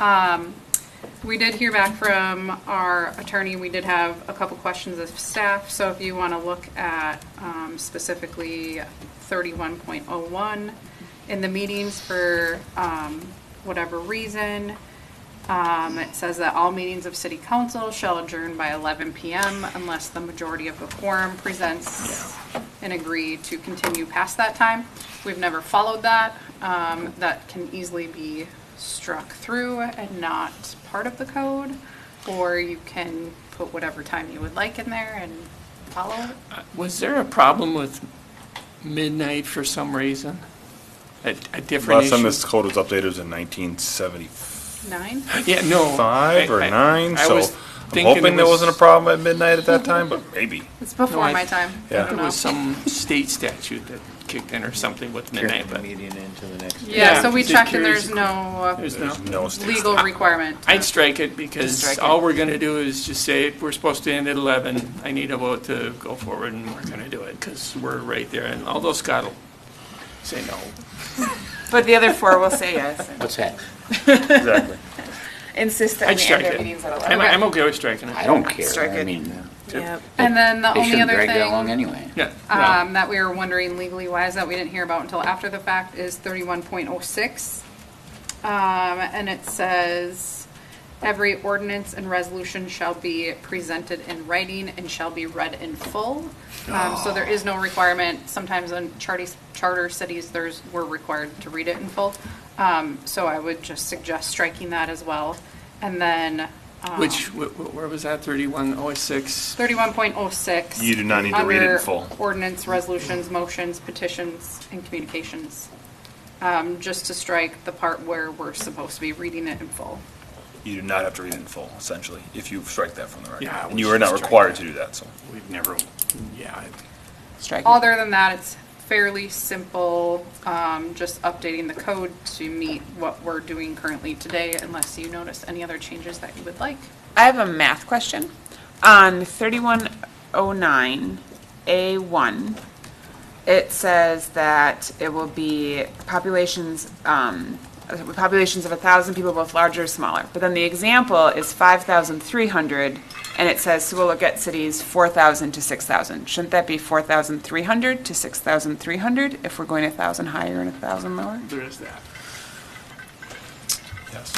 Um, We did hear back from our attorney. We did have a couple questions of staff. So if you want to look at um, specifically 31.01 in the meetings for um, whatever reason, um, it says that all meetings of city council shall adjourn by 11 PM unless the majority of the quorum presents and agree to continue past that time. We've never followed that. Um, That can easily be struck through and not part of the code, or you can put whatever time you would like in there and follow it. Was there a problem with midnight for some reason? A, a different Last time issue? this code was updated was in 1975 Nine? Yeah, no. or I- I- 9, I so was I'm thinking hoping it there was- wasn't a problem at midnight at that time, but maybe. It's before I- my time. I yeah. don't There know. was some state statute that kicked in or something with midnight, but Median into the next. Yeah, so we Just checked and curious. there's no uh, there's no. No state legal requirement. I'd strike it because strike it. all we're going to do is just say, we're supposed to end at 11. I need a vote to go forward and we're going to do it because we're right there. And although Scott will say no. But the other four will say yes. What's that? exactly. Insist that I'd we end strike our it. meetings at I'm, 11. I'm okay with striking I it. don't care. Strike I it. mean, Yep. And then the they only shouldn't other drag that thing along anyway. Yeah. well, um, that we were wondering legally wise that we didn't hear about until after the fact is thirty-one point oh six. Um, and it says, every ordinance and resolution shall be presented in writing and shall be read in full. Um, so there is no requirement, sometimes in charter, charter cities, there's, we're required to read it in full. Um, so I would just suggest striking that as well. And then, um, Which, wh- wh- where was that? 3106? Thirty-one point oh six. You do not need to read it in full. Ordinance, resolutions, motions, petitions, and communications. Um, just to strike the part where we're supposed to be reading it in full. You do not have to read it in full, essentially, if you strike that from the record. Yeah, And we you are not should strike required that. to do that, so. We've never, yeah. I- Strike it. Other than that, it's fairly simple, um, just updating the code to meet what we're doing currently today, unless you notice any other changes that you would like. I have a math question. On 3109A1, it says that it will be populations, um, uh, populations of 1,000 people, both larger or smaller. But then the example is 5,300, and it says, so we'll look at cities 4,000 to 6,000. Shouldn't that be 4,300 to 6,300 if we're going 1,000 higher and 1,000 lower? There is that. Yes.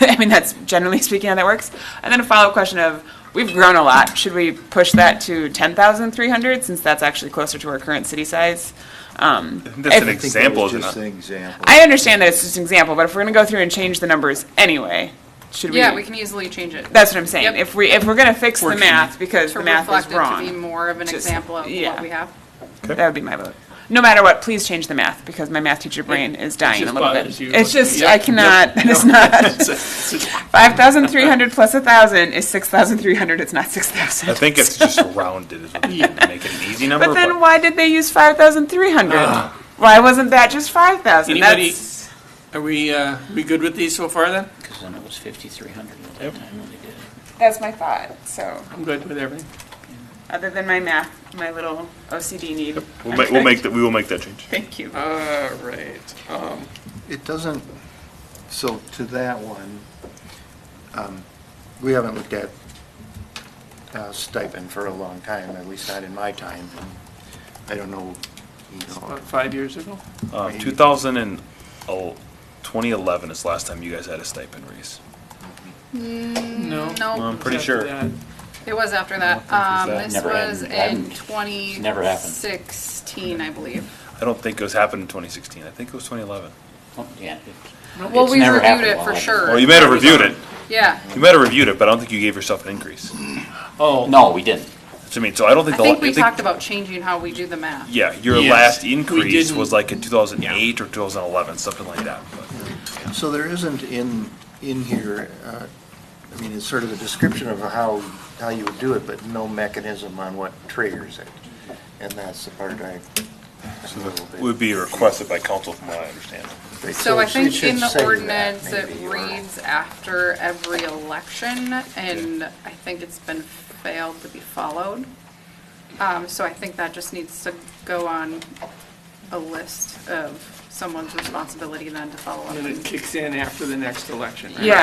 I mean, that's generally speaking how that works. And then a follow-up question of, we've grown a lot. Should we push that to 10,300 since that's actually closer to our current city size? Um, That's an if- example, isn't Just an it? example. I understand that it's just an example, but if we're going to go through and change the numbers anyway, should we? Yeah, we can easily change it. That's what I'm saying. Yep. If we, if we're going to fix the Working. math because To the math reflect is it to be wrong, more of an Just- example of what yeah. we have. that would be my vote. No matter what, please change the math because my math teacher brain is dying a just little bit. bothers you. It's just, Yep, I yep, cannot, it's not. It's a- it's a- 5,300 plus 1,000 is 6,300. It's not 6,000. I think it's just rounded, is what we did to make it an easy number. But then why did they use 5,300? Why wasn't that just 5,000? Anybody- That's Are we, uh, we good with these so far then? Because then it was 5,300 at that time when they did it. that's my thought. So I'm good with everything. other than my math, my little OCD need. We'll I'm make, we'll good. make, that- we will make that change. Thank you. All right. Um, It doesn't, so to that one, um, we haven't looked at uh, stipend for a long time, at least not in my time. I don't know, you know, About five years ago? Um, 2000 and, oh, 2011 is the last time you guys had a stipend raise. No. Well, No, I'm pretty After sure. that. It was after I that. don't Um, think this it's that. Never was happened. in Hadn't. twenty never happened. sixteen, I believe. I don't think it was happened in 2016. I think it was 2011. Oh, Yeah. it- Well, it's we never reviewed happened it while for I- sure. Well, you might have reviewed it. Yeah. You might have reviewed it, but I don't think you gave yourself an increase. Oh, No, we didn't. So, I mean, so I don't I think the. think we talked about changing how we do the math. Yeah, your Yes, last we increase didn't- was like in 2008 or 2011, something like that. but- so there isn't in, in here, uh, I mean, it's sort of a description of how, how you would do it, but no mechanism on what triggers it. And that's the part I. I'm a little bit- Would be requested by council from what I understand. So I it think should in say that, the ordinance, it maybe, uh, or- reads after every election, and I think it's been failed to be followed. Um, so I think that just needs to go on a list of someone's responsibility then to follow up. and then it kicks in after the next election, right? Yeah,